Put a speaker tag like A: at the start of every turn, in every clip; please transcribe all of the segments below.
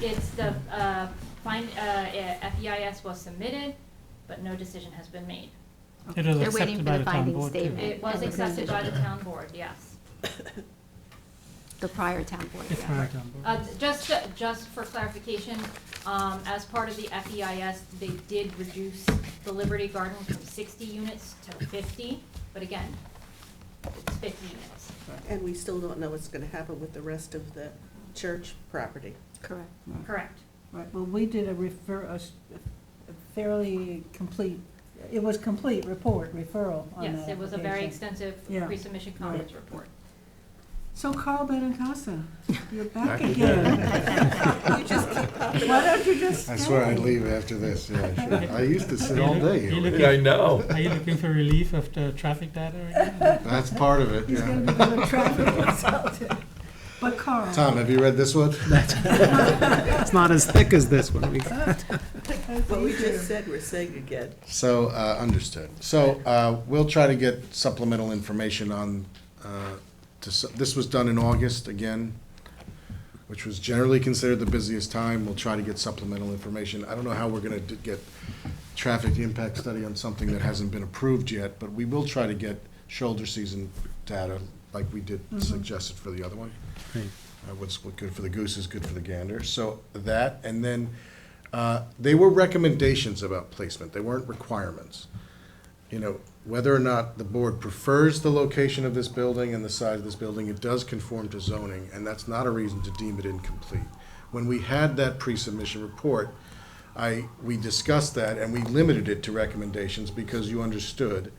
A: it's the, uh, find, uh, FEIS was submitted, but no decision has been made.
B: It is
C: They're waiting
B: accepted
C: for
B: by
C: the
B: the town
C: finding
B: board, too.
C: statement.
A: It was
C: And the
A: accepted by the
C: decision.
A: town board, yes.
C: The prior town board,
B: It's
C: yeah.
B: by the town
A: Uh,
B: board.
A: just, just for clarification, um, as part of the FEIS, they did reduce the Liberty Garden from sixty units to fifty, but again, it's fifty units.
D: And we still don't know what's gonna happen with the rest of the church property.
C: Correct.
A: Correct.
E: Right, well, we did a refer, a s- a fairly complete, it was complete report, referral on the
A: Yes, it was a very
E: application.
A: extensive
E: Yeah.
A: pre-submission conference report.
E: So Carl Benincasa, you're back
F: Back again.
E: again. You just keep popping. Why don't you just
F: I
E: stay?
F: swear I'd leave after this, yeah, sure. I used to sit all day.
B: You
F: here.
B: look- I
G: know.
B: Are you looking for relief of the traffic data again?
F: That's part of it,
E: He's gonna
F: yeah.
E: become a traffic consultant. But Carl.
F: Tom, have you read this one?
H: It's not as thick as this one. We-
E: that's
D: What we
E: easier.
D: just said, we're saying again.
F: So, uh, understood. So, uh, we'll try to get supplemental information on, uh, to s- this was done in August again, which was generally considered the busiest time. We'll try to get supplemental information. I don't know how we're gonna d- get traffic impact study on something that hasn't been approved yet, but we will try to get shoulder season data like we did suggested for the other one.
H: Right.
F: Uh, What's good for the goose is good for the gander. So that, and then uh, they were recommendations about placement. They weren't requirements. You know, whether or not the board prefers the location of this building and the size of this building, it does conform to zoning, and that's not a reason to deem it incomplete. When we had that pre-submission report, I, we discussed that and we limited it to recommendations because you understood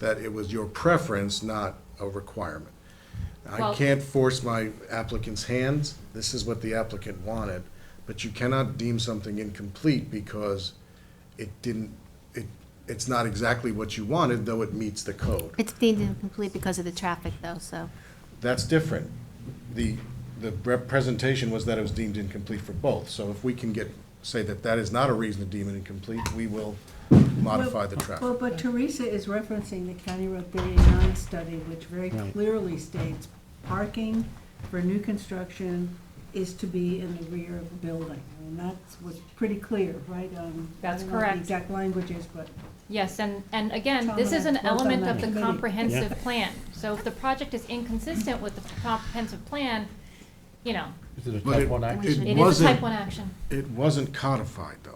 F: that it was your preference, not a requirement. I
A: Well-
F: can't force my applicant's hands. This is what the applicant wanted. But you cannot deem something incomplete because it didn't, it, it's not exactly what you wanted, though it meets the code.
C: It's deemed incomplete because of the traffic, though, so.
F: That's different. The, the representation was that it was deemed incomplete for both. So if we can get, say that that is not a reason to deem it incomplete, we will modify the
E: Well,
F: traffic.
E: but Teresa is referencing the County Road 39 study, which very
H: Right.
E: clearly states parking for new construction is to be in the rear of the building. And that's was pretty clear, right? Um, I
A: That's
E: don't know what
A: correct.
E: The exact language is, but
A: Yes, and, and again,
E: Tom
A: this
E: and
A: is
E: I
A: an
E: both on
A: element
E: that
A: of the
E: committee.
A: comprehensive plan. So if the project is inconsistent with the comprehensive plan, you know,
G: Is it a
F: But
G: type one action?
C: It
A: it is a
F: wasn't-
A: type one action.
F: It wasn't codified, though.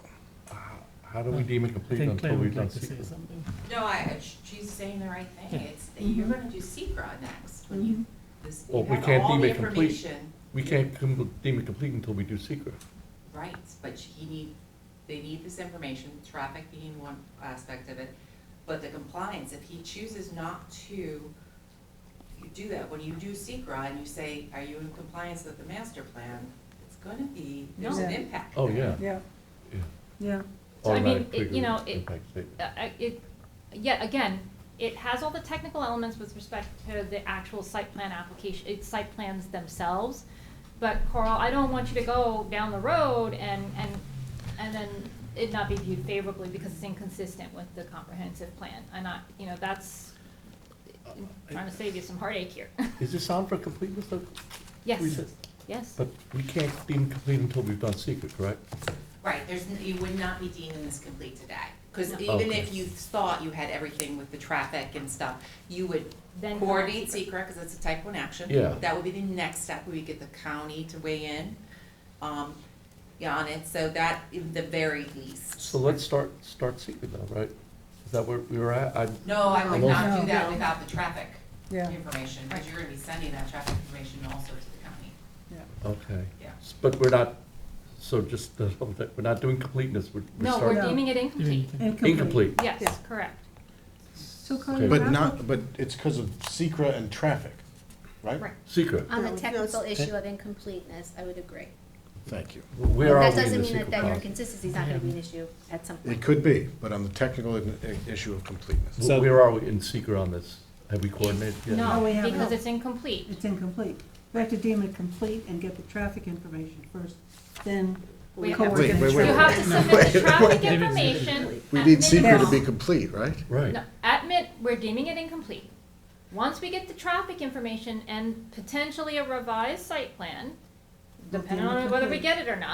G: How do we deem
B: I
G: it complete
B: think Claire
G: until
B: would
G: we've done
B: like to say
G: secret?
B: something.
I: No, I, she's saying the right thing.
B: Yeah.
I: It's, that you're gonna do secra next,
E: Mm-hmm.
I: when you, this,
G: Well,
I: you
G: we
I: have
G: can't
I: all
G: deem
I: the
G: it complete.
I: information.
G: We can't com- deem it complete until we do secret.
I: Right, but he need, they need this information, traffic being one aspect of it, but the compliance, if he chooses not to do that, when you do secra and you say, are you in compliance with the master plan? It's gonna be, there's an
E: No.
I: impact.
G: Oh, yeah.
E: yeah,
G: Yeah.
E: yeah.
A: So, I mean,
G: Automatic
A: it- you
G: trigger
A: know, it-
G: impact statement.
A: Uh, I- it, yet again, it has all the technical elements with respect to the actual site plan application, it's site plans themselves. But Carl, I don't want you to go down the road and, and, and then it not be viewed favorably because it's inconsistent with the comprehensive plan. And I, you know, that's, I'm trying to save you some heartache here.
G: Is this on for completeness though? We
A: Yes,
G: said-
A: yes.
G: But we can't deem it complete until we've done secret, correct?
I: Right, there's, n- you would not be deeming this complete today. Because
A: No.
I: even
G: Okay.
I: if you thought you had everything with the traffic and stuff, you would
A: Then
I: coordinate
A: not secret.
I: secret because it's a type one action.
G: Yeah.
I: That would be the next step, we get the county to weigh in, um, yeah, on it, so that, in the very least.
G: So let's start, start secret now, right? Is that where we were at? I,
I: No, I would not do
E: No.
I: that without the traffic
E: Yeah.
I: information, because you're gonna be sending that traffic information also to the county,
G: okay.
I: yeah.
G: S- But we're not, so just, the whole thing, we're not doing completeness, we're, we're
A: No, we're
G: starting.
E: No.
A: deeming it incomplete.
G: Incomplete.
A: Yes,
E: Yeah.
A: correct.
E: So Carl,
G: Okay.
E: your
F: But
E: applic-
F: not, but it's because of secra and traffic, right?
A: Right.
G: Secret.
D: On the No, technical that's-
H: issue
C: of incompleteness, I would agree.
F: Thank you.
G: Where are we in the secret process?
C: consistency's not gonna be an issue at some
F: It could be, but on the technical i- i- issue of completeness.
G: Wh- Where are we in secret on this? Have we coordinated? yet?
E: No, we
A: No,
E: haven't.
A: because it's incomplete.
E: It's incomplete. We have to deem it complete and get the traffic information first, then
A: We
E: we
A: have-
E: coordinate.
F: Wait, wait,
A: You
F: wait,
A: have to submit the traffic
B: Wait, wait, wait.
A: information.
F: We
A: at
F: need secra to
A: minimum.
F: be complete, right?
G: Right.
A: No, at min, we're deeming it incomplete. Once we get the traffic information and potentially a revised site plan,
E: We'll deem
A: depending
E: it
A: on whether we
E: complete.
A: get it or not.